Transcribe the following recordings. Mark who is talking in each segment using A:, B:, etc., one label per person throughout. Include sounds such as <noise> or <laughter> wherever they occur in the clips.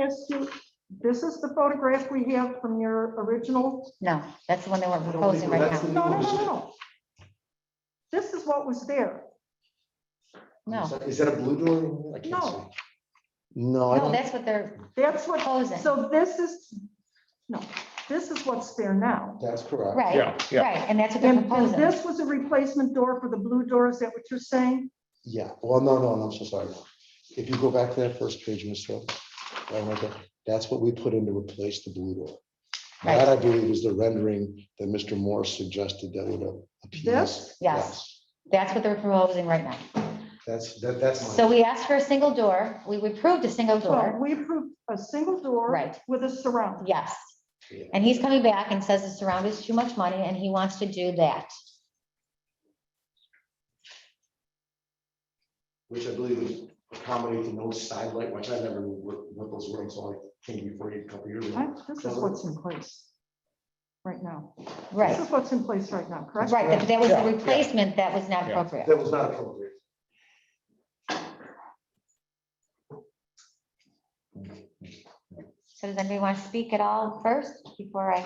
A: ask you, this is the photograph we have from your original?
B: No, that's the one that we're
C: don't
B: proposing
C: think
B: right
C: that's
B: now.
A: No, no, no, no. This is what was there.
B: No,
C: Is that a blue door? I can't
A: No.
C: see. No, I
B: no,
C: don't,
B: that's what they're
A: That's what,
B: proposing.
A: so this is, no, this is what's there now.
C: that's correct.
B: Right,
D: Yeah, yeah.
B: right, and that's what they're
A: And and
B: proposing.
A: this was a replacement door for the blue door, is that what you're saying?
C: Yeah, well, no, no, no, I'm so sorry. If you go back to that first page, Ms. Hill, I wrote that- that's what we put in to replace the blue door. That, I believe, is the rendering that Mr. Morse suggested that would appeal.
A: This?
B: Yes.
C: Yes,
B: That's what they're proposing right now.
C: that's, that, that's my.
B: So we asked for a single door, we approved a single
A: Well,
B: door,
A: we approved a single door
B: right,
A: with a surround.
B: yes. And he's coming back and says the surround is too much money and he wants to do that.
C: which I believe would accommodate the no side light, which I never knew what, what those were until I came before you a couple years ago.
A: Right? This is what's in place right now. This
B: Right,
A: is what's in place right now, correct?
B: right, that- that was the
C: Yeah, yeah.
B: replacement that was not appropriate.
C: That was not appropriate.
B: So does anybody want to speak at all first before I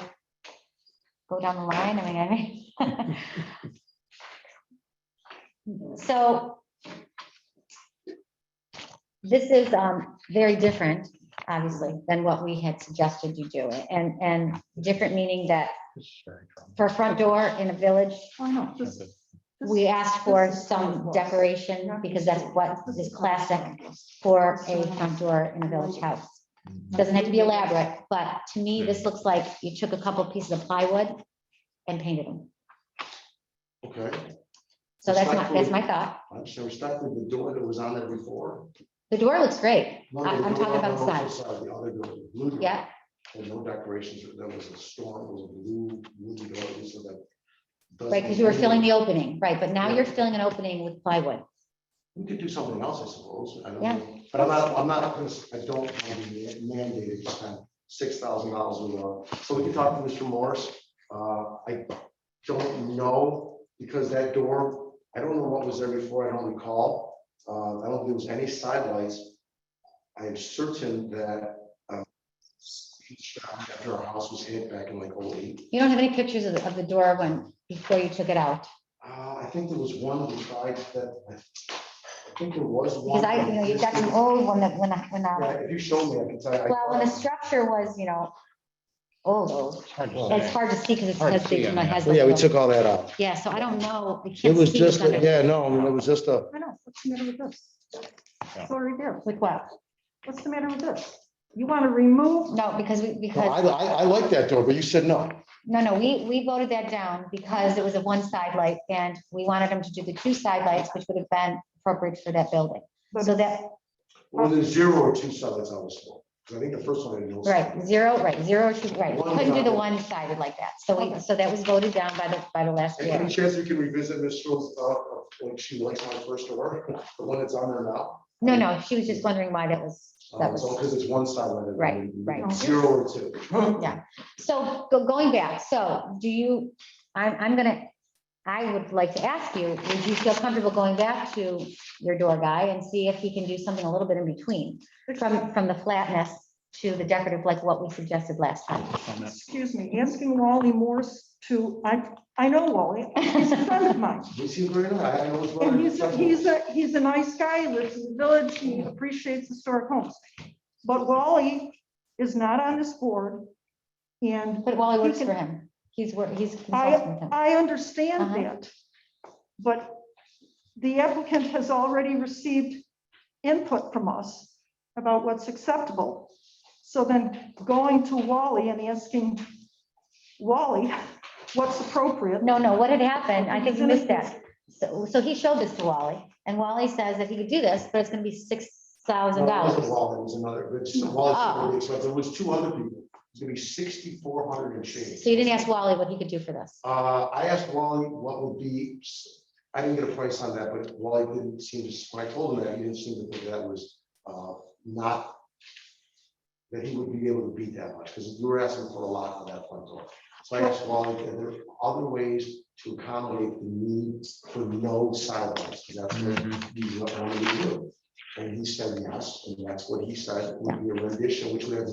B: go down the line? I mean, I mean. <laughs> So this is um, very different, obviously, than what we had suggested you do. And, and different meaning that for a front door in a village,
A: I know, this- this-
B: we asked for
A: this is what it
B: some
A: was.
B: decoration because that's what is classic for a front door in a village house. Doesn't have to be elaborate, but to me,
E: Hmm.
B: this looks like you took a couple pieces of plywood and painted them.
C: Okay,
B: So that's my, that's my thought.
C: I'm so respectful the door that was on there before.
B: The door looks great.
C: No,
B: I-
C: the
B: I'm talking
C: door on
B: about the
C: opposite
B: side.
C: side, The other door, the blue door.
B: Yeah,
C: And no decorations, there was a storm, it was a blue, wooden door, so that. doesn't-
B: right, because you were filling the opening, right, but now you're filling an opening with plywood.
C: We could do something else, I suppose, I don't
B: Yeah.
C: know, but I'm not, I'm not, I don't want to be mandated to spend six thousand dollars a month. So we can talk to Mr. Morse, uh, I don't know, because that door, I don't know what was there before, I don't recall. Uh, I don't think there was any sidelights. I am certain that, uh, after our house was hit back in like oh eight,
B: You don't have any pictures of, the- of the door when, before you took it out.
C: uh, I think there was one we tried that, I think there was one.
B: Because I, you know, you've got some old one that, when I, when
C: Yeah,
B: I,
C: if you show me, I can tell you. I-
B: well, when the structure was, you know, old, old, it's hard to see because it
D: Hard to
B: has,
D: see
B: the-
D: on
B: my
D: that.
B: has.
E: Well, Yeah, we
B: like the-
E: took all that out.
B: Yeah, so I don't know. I
E: It
B: can't
E: was
B: see
E: just,
B: what's under-
E: yeah, no, it was just a,
A: I know, what's the matter with this? It's already there.
B: With what?
A: What's the matter with this? You want to remove,
B: No, because we,
E: no, I,
B: because,
E: I, I like that door, but you said no.
B: no, no, we, we voted that down because it was a one side light and we wanted them to do the two side lights, which would have been appropriate for that building.
A: but
B: So that,
C: Well, there's zero or two sides on this one, 'cause I think the first one. I didn't know.
B: right, zero, right, zero, two, right, we
C: One
B: couldn't do the
C: side.
B: one sided like that. So we, so that was voted down by the, by the last
C: And Any
B: year.
C: chance you can revisit Ms. Schultz's thought of when she likes my first door, the one that's on there now?
B: No, no, she was just wondering why that was, that
C: Um, So,
B: was.
C: because it's one side. on it,
B: Right, right.
C: Zero or two. <laughs>
B: So go- going back, so do you, I'm, I'm gonna, I would like to ask you, would you feel comfortable going back to your door guy and see if he can do something a little bit in between? From, from the flatness to the decorative, like what we suggested last time.
A: excuse me, asking Wally Morse to, I, I know Wally, he's a friend of mine.
C: We see where it is. I I know it's.
A: And he's, a- he's a, he's a nice guy, he lives in the village, he appreciates historic homes. But Wally is not on this board. And
B: But Wally works for him. He's, wor- he's consulting with him.
A: I understand
B: Uh-huh.
A: that. But the applicant has already received input from us about what's acceptable. So then going to Wally and asking Wally <laughs> what's appropriate.
B: No, no, what had happened, I think you missed that. So, so he showed this to Wally and Wally says that he could do this, but it's gonna be six thousand
C: It
B: dollars.
C: was another, it's,
B: Ah.
C: well, it's really expensive. It was two other people. It's gonna be sixty-four hundred and change.
B: So you didn't ask Wally what he could do for this.
C: Uh, I asked Wally what would be, I didn't get a price on that, but Wally didn't seem to, when I told him that, he didn't seem to think that was, uh, not. That he would be able to beat that much, because you were asking for a lot on that front door. So I asked Wally, are there other ways to accommodate the need for no sidewalks? Because that's what you want me to do. And he said yes, and that's what he said, would be a rendition, which we have